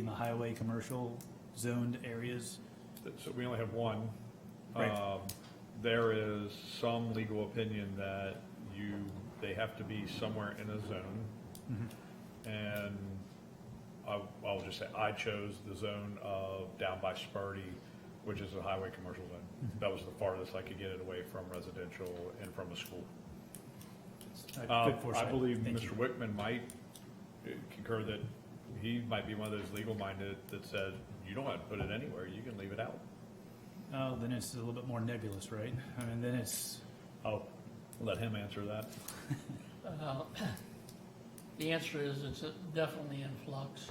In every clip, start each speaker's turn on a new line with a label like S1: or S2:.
S1: in the highway commercial zoned areas.
S2: Th- So we only have one.
S1: Right.
S2: Um, There is some legal opinion that you, they have to be somewhere in a zone.
S1: Mm-hmm.
S2: And I, I'll just say, I chose the zone of down by Sparty, which is a highway commercial zone.
S1: Mm-hmm.
S2: That was the farthest I could get it away from residential and from a school.
S1: Uh,
S2: Um,
S1: good foresight.
S2: I believe
S1: Thank you.
S2: Mr. Wickman might uh, concur that he might be one of those legal-minded that said, you don't have to put it anywhere, you can leave it out.
S1: Oh, then it's a little bit more nebulous, right? I mean, then it's, Oh.
S2: I'll let him answer that.
S3: Uh, The answer is it's definitely in flux.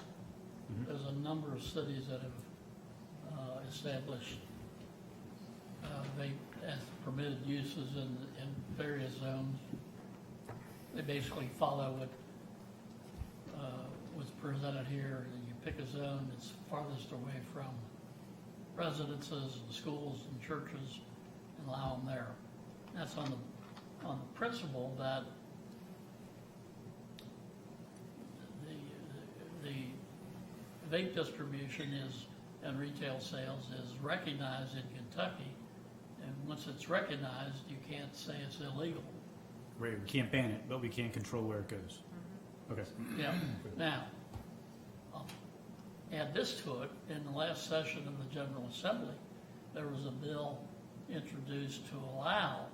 S3: There's a number of cities that have uh, established, uh, they, as permitted uses in, in various zones. They basically follow what uh, was presented here, and you pick a zone that's farthest away from residences and schools and churches and allow them there. That's on the, on the principle that the, the vape distribution is, and retail sales is recognized in Kentucky. And once it's recognized, you can't say it's illegal.
S1: right, we can't ban it, but we can't control where it goes. Okay,
S3: Yeah, now, I'll add this to it, in the last session of the General Assembly, there was a bill introduced to allow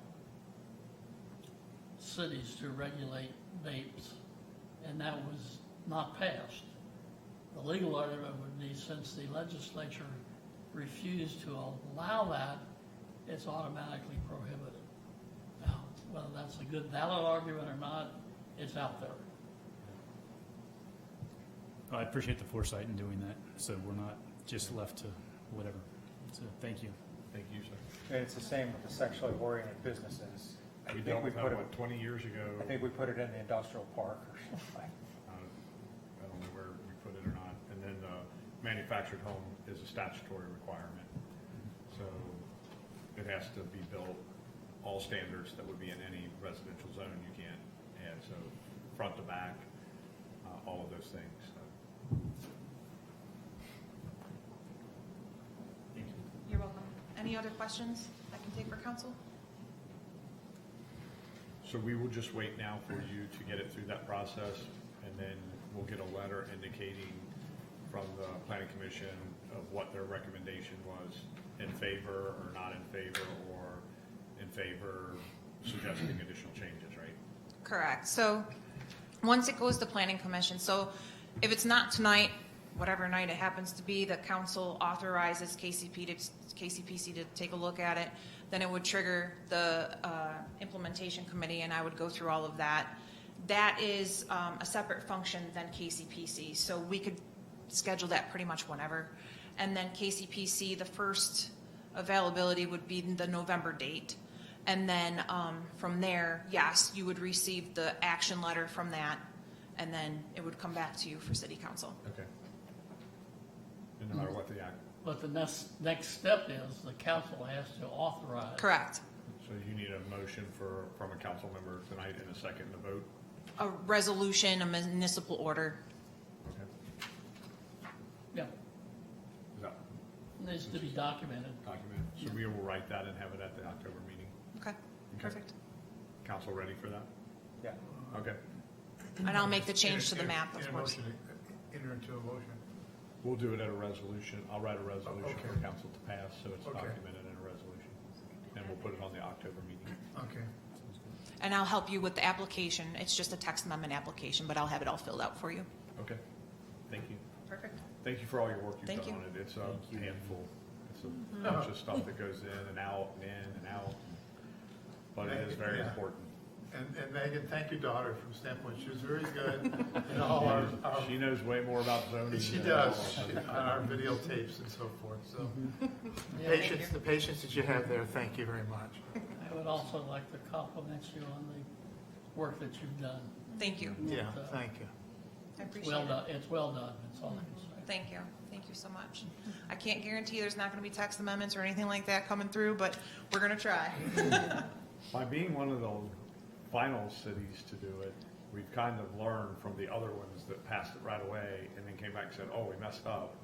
S3: cities to regulate vapes, and that was not passed. The legal argument would be since the legislature refused to allow that, it's automatically prohibited. Now, whether that's a good valid argument or not, it's out there.
S1: I appreciate the foresight in doing that, so we're not just left to whatever. So, thank you.
S2: Thank you, sir.
S4: And it's the same with the sexually oriented businesses. I
S2: We
S4: think
S2: dealt
S4: we
S2: with that,
S4: put it,
S2: what, twenty years ago?
S4: I think we put it in the industrial park or something.
S2: Uh, I don't know where we put it or not. And then, uh, manufactured home is a statutory requirement. So it has to be built, all standards that would be in any residential zone you can't add, so front to back, uh, all of those things, so.
S5: You're welcome. Any other questions I can take for council?
S2: So we will just wait now for you to get it through that process, and then we'll get a letter indicating from the planning commission of what their recommendation was, in favor or not in favor, or in favor suggesting additional changes, right?
S5: Correct. So, once it goes to planning commission, so if it's not tonight, whatever night it happens to be, the council authorizes KCP to, KCPC to take a look at it, then it would trigger the, uh, implementation committee and I would go through all of that. That is, um, a separate function than KCPC, so we could schedule that pretty much whenever. And then KCPC, the first availability would be the November date. And then um, from there, yes, you would receive the action letter from that, and then it would come back to you for city council.
S2: Okay. And no matter what the act,
S3: But the next, next step is the council has to authorize.
S5: Correct.
S2: so you need a motion for, from a council member tonight and a second to vote?
S5: A resolution, a municipal order.
S2: Okay.
S3: Yeah,
S2: Is that
S3: needs to be documented.
S2: documented? So we will write that and have it at the October meeting.
S5: Okay, perfect.
S2: Council ready for that?
S4: Yeah.
S2: Okay.
S5: And I'll make the change to the
S6: In a-
S5: map,
S6: in
S5: of
S6: a
S5: course.
S6: motion, Enter into a motion.
S2: We'll do it at a resolution. I'll write a resolution for
S6: Okay.
S2: council to pass, so it's
S6: Okay.
S2: documented in a resolution. And we'll put it on the October meeting.
S6: Okay.
S5: And I'll help you with the application. It's just a text amendment application, but I'll have it all filled out for you.
S2: Okay. Thank you.
S5: Perfect.
S2: Thank you for all your work you've
S5: Thank
S2: done on
S5: you.
S2: it. It's a handful. It's
S6: Mm-hmm.
S2: a bunch of stuff that goes in and out and in and out. But it is very
S6: Yeah.
S2: important.
S6: And, and Megan, thank your daughter from standpoint. She was very good in all our, our,
S2: She knows way more about zoning.
S6: she
S2: than all of
S6: does,
S2: us.
S6: she- on our videotapes and so forth, so.
S5: Mm-hmm.
S6: The
S3: Yeah.
S6: Patience, the patience that you have there, thank you very much.
S3: I would also like to compliment you on the work that you've done.
S5: Thank you.
S6: Yeah,
S3: It's, uh,
S6: thank you.
S5: I
S3: it's
S5: appreciate
S3: Well
S5: it.
S3: done, it's well done, that's all I can say.
S5: Thank you. Thank you so much. I can't guarantee there's not going to be text amendments or anything like that coming through, but we're going to try.
S2: By being one of the final cities to do it, we've kind of learned from the other ones that passed it right away and then came back and said, oh, we messed up.